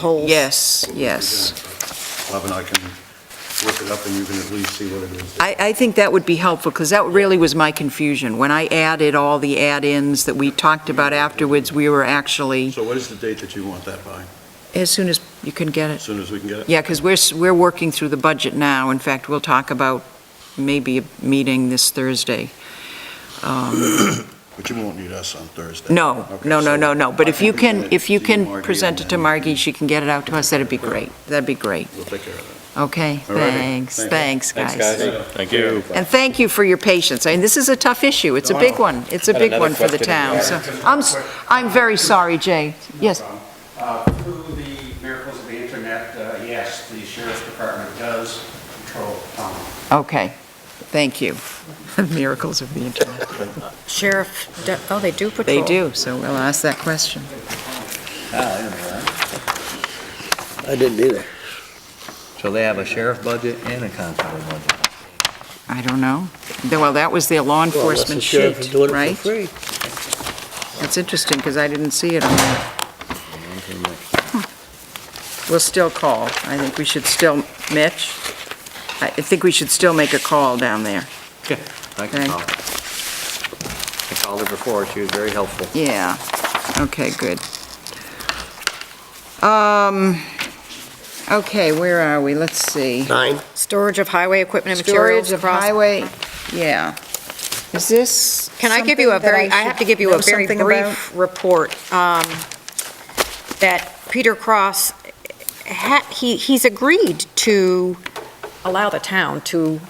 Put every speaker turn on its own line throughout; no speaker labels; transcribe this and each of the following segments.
whole.
Yes, yes.
Bob and I can look it up, and you can at least see what it is.
I, I think that would be helpful, because that really was my confusion. When I added all the add-ins that we talked about afterwards, we were actually,
So what is the date that you want that by?
as soon as you can get
As
it.
soon as we can get it?
Yeah, because we're, s- we're working through the budget now. In fact, we'll talk about maybe a meeting this Thursday. Um,
But you won't need us on Thursday.
No,
Okay,
no, no,
so
no, no. But
I
if you
present
can,
it
if you
to
can
Margie,
present it
and
to
then
Margie, she can get it out to us, that'd be great. That'd be great.
We'll take care of
Okay,
All righty.
thanks,
Thank
thanks,
Thanks,
guys.
guys. Thank you.
And thank you for your patience. I mean, this is a tough issue. It's a big one. It's a
Had
big
another
one for the
question.
town, so, I'm, s- I'm very sorry, Jay.
No
Yes,
problem. Uh, Through the miracles of the internet, uh, yes, the sheriff's department does control town.
okay, thank you. Miracles of the internet.
Sheriff, do- oh, they do patrol.
They do, so we'll ask that question.
I didn't either.
So they have a sheriff budget and a constable budget.
I don't know. Th- Well, that was their law
Well, unless the
enforcement
sheriff is
sheet,
doing it for
right?
free.
That's interesting, because I didn't see it on there. We'll still call. I think we should still, Mitch, I I think we should still make a call down there.
I can call. I called her before, she was very helpful.
Yeah, okay, good. Um, okay, where are we? Let's see.
Nine.
Storage of highway equipment and materials.
Storage of
across-
highway, yeah. Is this?
Can I give you a
something that
very, I have to
should
give you a
know
very
something about?
brief report, um, that Peter Cross, ha- he, he's agreed to allow the town to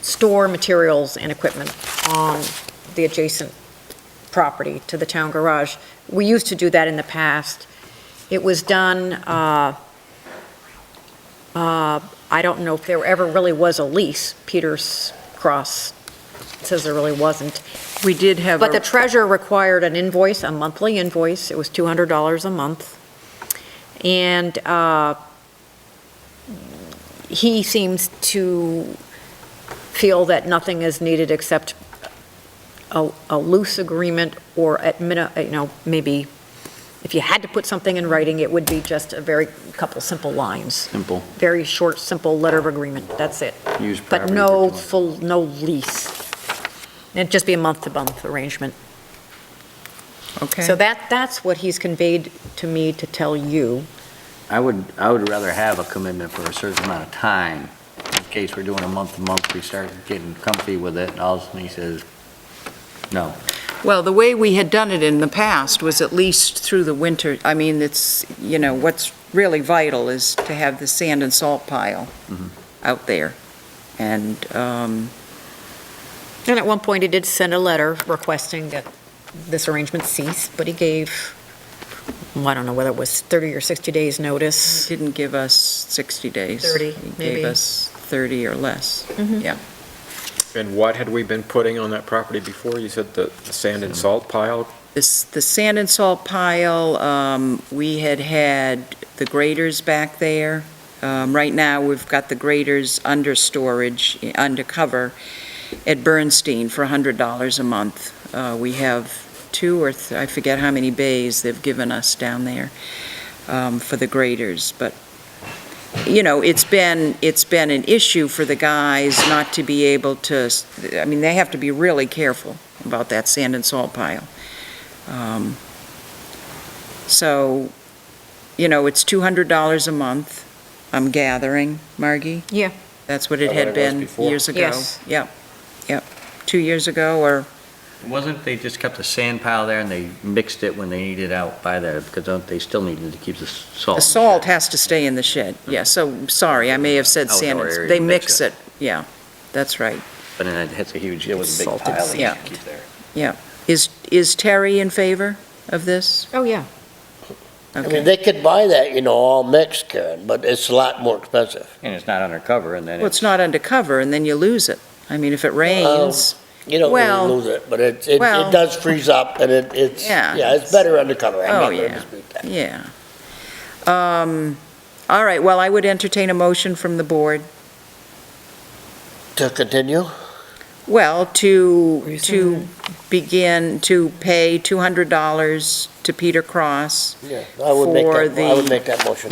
store materials and equipment on the adjacent property to the town garage. We used to do that in the past. It was done, uh, uh, I don't know if there ever really was a lease. Peter's Cross says there really wasn't.
We did have,
But the
a-
treasurer required an invoice, a monthly invoice, it was $200 a month. And uh, he seems to feel that nothing is needed except a a loose agreement or at, mini- you know, maybe if you had to put something in writing, it would be just a very, couple simple lines,
Simple,
very short, simple letter of agreement, that's it.
use property.
But no
for-
full, no lease. It'd just be a month-to-month arrangement. So
okay,
that, that's what he's conveyed to me to tell you.
I would, I would rather have a commitment for a certain amount of time, in case we're doing a month to month, we start getting comfy with it, and all of a sudden he says, no.
well, the way we had done it in the past was at least through the winter. I mean, it's, you know, what's really vital is to have the sand and salt pile
Mm-hmm.
Mhm.
out there. And, um,
And at one point, he did send a letter requesting that this arrangement cease, but he gave, well, I don't know whether it was 30 or 60 days' notice.
Didn't give us 60 days.
30,
He
maybe.
Gave us 30 or less.
And what had we been putting on that property before? You said the the sand and salt pile?
This, the sand and salt pile, um, we had had the graders back there. Um, Right now, we've got the graders under storage, eh, under cover at Bernstein for $100 a month. Uh, We have two or, th- I forget how many bays they've given us down there um, for the graders, but, you know, it's been, it's been an issue for the guys not to be able to, s- I mean, they have to be really careful about that sand and salt pile. Um, So, you know, it's $200 a month, I'm gathering, Margie?
Yeah.
That's what it
Is that
had
what it was
been
before?
years ago.
Yes.
Yep, yep, two years ago, or,
Wasn't they just kept a sand pile there and they mixed it when they needed out by there, because don't- they still needed to keep the s-
Oh,
salt?
the salt has to stay in the shed, yeah, so, sorry, I may have said sand,
Outdoor area,
they
you
mix
mix
it, yeah, that's right.
But then it hits a huge, it was a big
Salted
pile that you
sand.
should keep there.
Is, is Terry in favor of this?
Oh, yeah.
I mean,
Okay.
they could buy that, you know, all mixed, Karen, but it's a lot more expensive.
And it's not undercover, and then
Well, it's
it's,
not undercover, and then you lose it. I mean, if it
Um,
rains,
You don't
Well-
really lose it, but it, it,
well-
it does freeze up and it, it's,
Yeah.
yeah, it's better undercover. I'm
Oh,
not gonna
yeah.
dispute that.
yeah. Um, All right, well, I would entertain a motion from the board,
To continue,
well, to, to begin to pay $200 to Peter Cross
yeah, I would make
For
that, I
the-
would make that motion.